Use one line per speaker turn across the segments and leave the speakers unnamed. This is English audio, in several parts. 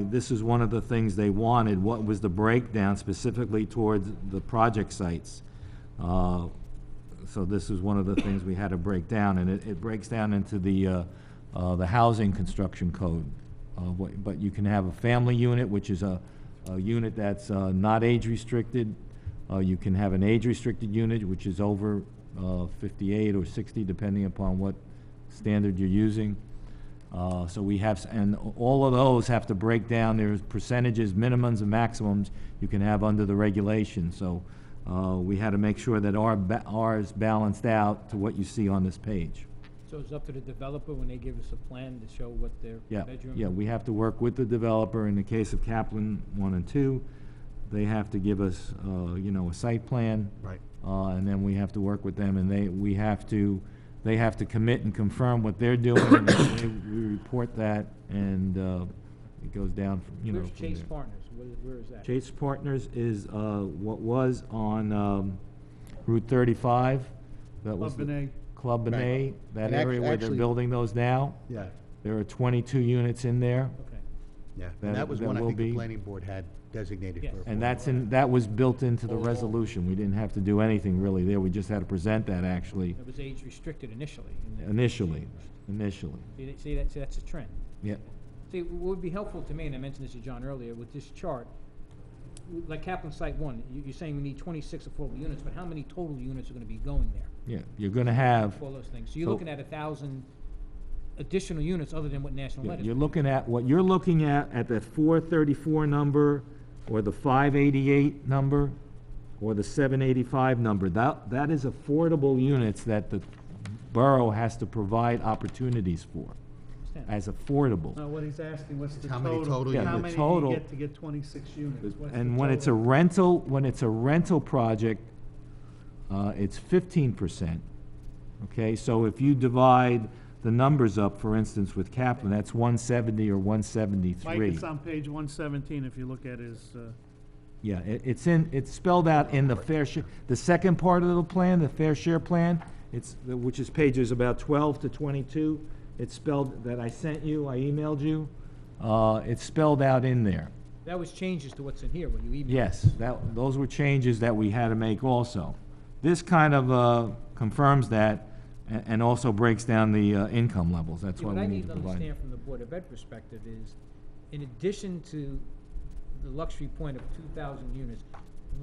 this is one of the things they wanted, what was the breakdown specifically towards the project sites? Uh, So this is one of the things we had to break down, and it, it breaks down into the, uh, uh, the housing construction code. Uh, what- But you can have a family unit, which is a, a unit that's uh, not age-restricted. Uh, You can have an age-restricted unit, which is over uh, 58 or 60, depending upon what standard you're using. Uh, So we have, s- and all of those have to break down, there's percentages, minimums and maximums you can have under the regulation. So uh, we had to make sure that our, ba- ours balanced out to what you see on this page.
So it's up to the developer when they give us a plan to show what their
Yeah,
bedroom?
yeah, we have to work with the developer. In the case of Kaplan 1 and 2, they have to give us, uh, you know, a site plan.
Right.
Uh, And then we have to work with them, and they, we have to, they have to commit and confirm what they're doing. and then We we report that, and uh, it goes down, from you know.
Where's
from
Chase
there.
Partners? Where, where is that?
Chase Partners is uh, what was on um, Route 35. That was
Club
the-
Benet.
Club
Right.
Benet, that
And act-
area where they're
actually-
building those now.
Yeah,
There are 22 units in there.
Okay.
Yeah,
That-
and that was
that
one I
will
think the
be-
planning board had designated
Yes.
for.
And that's in, that was built into the resolution. We didn't have to do anything really there. We just had to present that actually,
It was age restricted initially. and then-
initially, initially.
See, that- see, that's, that's a trend.
Yeah,
See, what would be helpful to me, and I mentioned this to John earlier, with this chart, w- like Kaplan Site One, you, you're saying we need twenty-six affordable units, but how many total units are gonna be going there?
yeah. You're gonna have,
All those things. So you're
So-
looking at a thousand additional units other than what National Lead is.
you're looking at, what you're looking at, at the 434 number or the 588 number or the 785 number, that, that is affordable units that the borough has to provide opportunities for
Understand?
as affordable.
no, what he's asking, what's the
How many
total?
total Yeah,
How
the
many do
total-
you get to get twenty-six units? What's the
And when it's a
total?
rental, when it's a rental project, uh, it's fifteen percent. Okay, so if you divide the numbers up, for instance, with Kaplan, that's one seventy or one
Mike,
seventy-three.
it's on page one seventeen, if you look at his, uh,
Yeah, it, it's in, it's spelled out in the fair share, the second part of the plan, the fair share plan, it's, which is pages about twelve to twenty-two. It's spelled, that I sent you, I emailed you, uh, it's spelled out in there.
That was changes to what's in here, what you emailed.
Yes, that, those were changes that we had to make also. This kind of uh, confirms that a- and also breaks down the uh, income levels. That's
Yeah,
why
what I
we need
need
to
to
provide.
understand from the Board of Ed perspective is, in addition to the luxury point of two thousand units,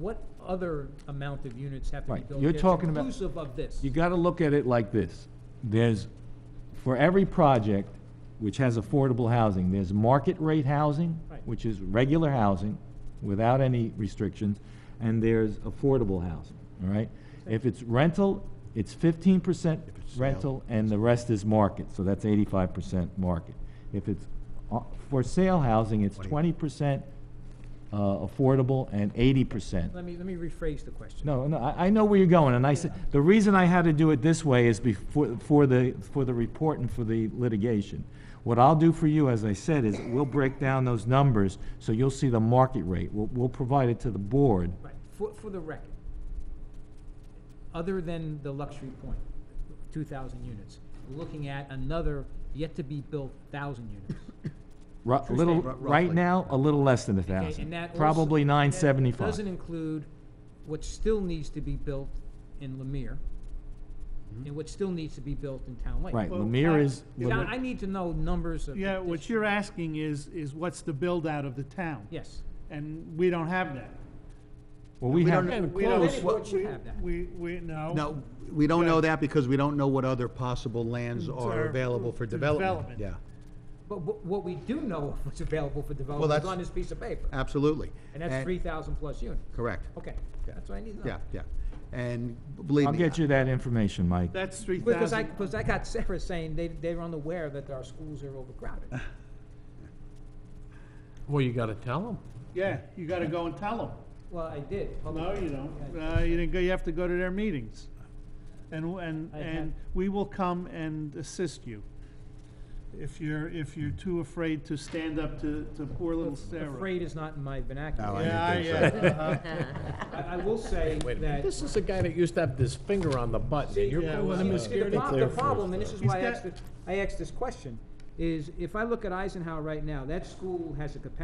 what other amount of units have to be
Right,
built?
you're
that's
talking about-
Inclusive of this.
You gotta look at it like this. There's, for every project which has affordable housing, there's market rate housing,
Right.
which is regular housing without any restrictions, and there's affordable housing, all right? If it's rental, it's fifteen percent
If it's sale.
rental and the rest is market, so that's eighty-five percent market. If it's uh, for sale housing, it's twenty
Twenty.
percent uh, affordable and eighty percent.
Let me, let me rephrase the question.
No, no, I, I know where you're going, and I said, the reason I had to do it this way is before, for the, for the report and for the litigation. What I'll do for you, as I said, is we'll break down those numbers, so you'll see the market rate. We'll, we'll provide it to the board.
Right, for, for the record, other than the luxury point, two thousand units, we're looking at another yet-to-be-built thousand units.
Ru- a little,
Ru-
right
roughly.
now, a little less than a
Okay,
thousand,
and that also-
probably
that
nine seventy-five.
Doesn't include what still needs to be built in Lemire, and what still needs to be built in Town Lake.
Right,
Mm-hmm. Well,
Lemire
I-
is,
Yeah,
Now,
Lemire-
I need to know numbers of.
yeah, what
addition-
you're asking is, is what's the build-out of the town?
Yes,
And we don't have that.
well, we
we
have,
don't-
And
we don't-
don't-
Planning board should
we-
have that.
We, we, no.
No, we don't know
Right.
that because we don't know what other possible lands
Are-
are available for
for
development.
development.
Yeah,
but what, what we do know of what's available for development
that's-
is on this piece of paper,
absolutely.
and that's Oh. three thousand plus units.
Correct,
Okay,
Yeah.
that's what I need to know.
yeah, yeah. And believe me.
I'll get you that information, Mike.
That's three thousand.
Because I, because I got Sarah saying they, they're unaware that our schools are overcrowded.
Well, you gotta tell them.
Yeah, you gotta go and tell them.
Well, I did.
No,
publicly.
you don't. Uh, you didn't go, you have to go to their meetings. And, w- and,
I
and
had-
we will come and assist you. If you're, if you're too afraid to stand up to, to poor little Sarah.
Afraid is not in my
No, I
vernacular.
Yeah,
didn't
yeah.
think so.
uh-huh.
I, I will say that.
This is the guy that used to have this finger on the button, and you're
Yeah,
calling
well,
him a
it's
uh, The
scaredy
prob-
cat.
the problem, and this is
He's
why I
got-
asked, it- I asked this question, is if I look at Eisenhower right now, that school has a capacity